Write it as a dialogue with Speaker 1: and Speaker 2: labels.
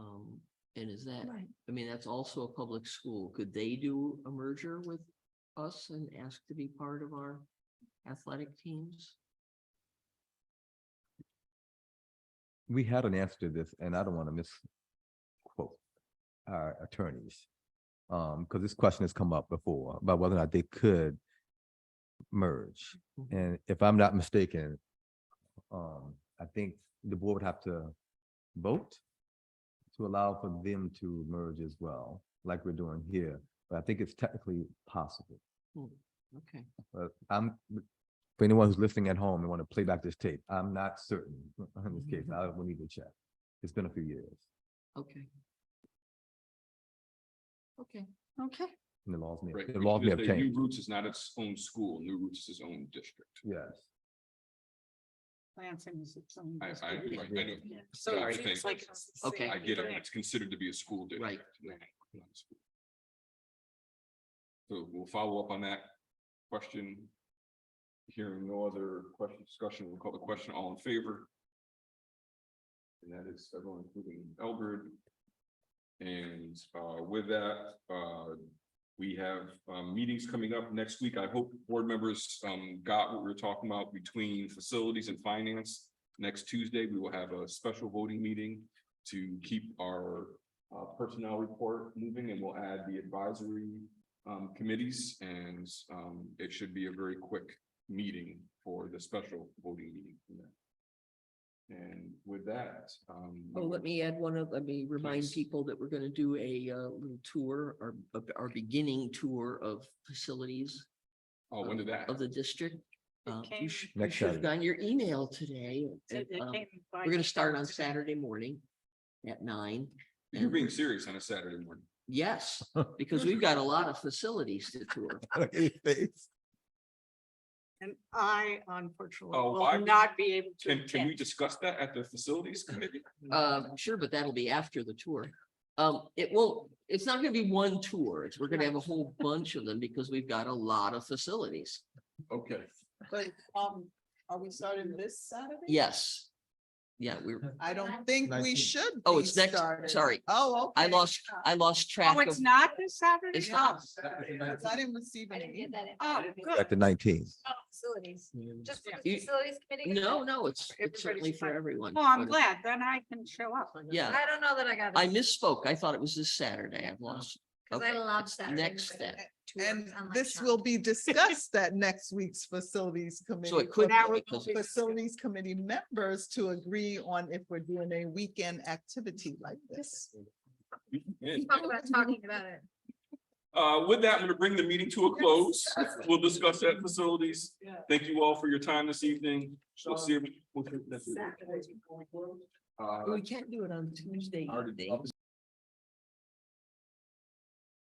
Speaker 1: Um, And is that,
Speaker 2: Right.
Speaker 1: I mean, that's also a public school. Could they do a merger with us and ask to be part of our athletic teams?
Speaker 3: we had an answer to this, and I don't want to misquote our attorneys. Um, because this question has come up before about whether or not they could merge.
Speaker 1: Mhm.
Speaker 3: And if I'm not mistaken, um, I think the board would have to vote to allow for them to merge as well, like we're doing here. But I think it's technically possible.
Speaker 1: Hmm, Okay,
Speaker 3: But Uh, I'm, for anyone who's listening at home and want to play back this tape, I'm not certain in this
Speaker 4: Mm-hmm.
Speaker 3: case. I will need to check. It's been a few years
Speaker 1: okay. Okay,
Speaker 2: Okay,
Speaker 3: and the laws may,
Speaker 4: Right.
Speaker 3: the
Speaker 4: we
Speaker 3: laws
Speaker 4: should
Speaker 3: may
Speaker 4: just
Speaker 3: have
Speaker 4: say New
Speaker 3: changed.
Speaker 4: Roots is not its own school. New Roots is its own district.
Speaker 3: Yes.
Speaker 2: Lansing is its own.
Speaker 4: I- I-
Speaker 2: district.
Speaker 4: right, I know.
Speaker 2: Yeah.
Speaker 4: So
Speaker 2: So
Speaker 4: I
Speaker 2: it
Speaker 4: think-
Speaker 2: seems like it's the
Speaker 1: Okay.
Speaker 2: same
Speaker 4: I get it.
Speaker 2: thing.
Speaker 4: It's considered to be a school district. not a school. So we'll follow up on that question. Hearing no other question, discussion, we'll call the question all in favor. And that is everyone including Elbert. And uh, with that, uh, we have um, meetings coming up next week. I hope board members um, got what we were talking about between facilities and finance. Next Tuesday, we will have a special voting meeting to keep our uh, personnel report moving and we'll add the advisory um, committees and um, it should be a very quick meeting for the special voting meeting. from that. And with that, um.
Speaker 1: oh, let me add one of, let me remind
Speaker 4: Please.
Speaker 1: people that we're gonna do a uh little tour or a- our beginning tour of facilities
Speaker 4: Oh, when did that?
Speaker 1: of the district.
Speaker 2: It
Speaker 1: Uh,
Speaker 2: came-
Speaker 1: You should, you
Speaker 3: Next
Speaker 1: should have
Speaker 3: Saturday.
Speaker 1: gotten your email today.
Speaker 2: it-
Speaker 1: and,
Speaker 2: it
Speaker 1: um,
Speaker 2: came by
Speaker 1: We're gonna start
Speaker 2: email
Speaker 1: on
Speaker 2: today.
Speaker 1: Saturday morning at nine.
Speaker 4: You're
Speaker 1: and-
Speaker 4: being serious on a Saturday morning.
Speaker 1: Yes, because we've got a lot of facilities to tour.
Speaker 2: And I unfortunately
Speaker 4: Oh, I-
Speaker 2: will not be able to.
Speaker 4: Can, can we
Speaker 2: attend.
Speaker 4: discuss that at the facilities committee?
Speaker 1: Uh, sure, but that'll be after the tour. Um, it will, it's not gonna be one tour. It's, we're gonna have a whole bunch of them because we've got a lot of facilities.
Speaker 4: Okay,
Speaker 5: But um, are we starting this Saturday?
Speaker 1: Yes. Yeah, we're,
Speaker 5: I don't think we
Speaker 3: Nineteenth.
Speaker 5: should.
Speaker 1: Oh,
Speaker 5: be
Speaker 1: it's next-
Speaker 5: starting.
Speaker 1: sorry.
Speaker 5: Oh, okay.
Speaker 1: I lost, I lost track
Speaker 2: Oh,
Speaker 1: of,
Speaker 2: it's not this Saturday?
Speaker 1: It's not.
Speaker 5: Because I didn't receive
Speaker 6: I
Speaker 5: any.
Speaker 6: didn't get that.
Speaker 2: Oh,
Speaker 6: information.
Speaker 2: good.
Speaker 3: At the nineteenth.
Speaker 6: Oh, Facilities, just for the
Speaker 1: You-
Speaker 6: facilities committee.
Speaker 1: no, no, it's,
Speaker 2: Everybody's
Speaker 1: it's certainly for
Speaker 2: fine.
Speaker 1: everyone.
Speaker 2: Well, Oh, I'm
Speaker 1: but-
Speaker 2: glad, then I can show up.
Speaker 1: Yeah,
Speaker 6: I don't know that I got.
Speaker 1: I misspoke. I thought it was this Saturday. I've lost.
Speaker 2: Oh.
Speaker 6: Cause I
Speaker 1: Okay,
Speaker 6: allowed
Speaker 1: it's
Speaker 6: Saturday.
Speaker 1: Next
Speaker 6: morning
Speaker 1: step.
Speaker 6: to work
Speaker 5: And
Speaker 6: on my
Speaker 5: this
Speaker 6: shop.
Speaker 5: will be discussed at next week's facilities committee.
Speaker 1: So it
Speaker 5: for
Speaker 1: could
Speaker 2: That
Speaker 1: be
Speaker 2: would
Speaker 1: because
Speaker 2: be-
Speaker 5: Facilities committee members to agree on if we're doing a weekend activity like this.
Speaker 4: And,
Speaker 6: Talk about talking about it.
Speaker 4: uh, with that, I'm gonna bring the meeting to a close. We'll discuss that facilities. Thank you all for your time this evening. We'll see. you- we'll-
Speaker 1: we can't do it on Tuesday. evening.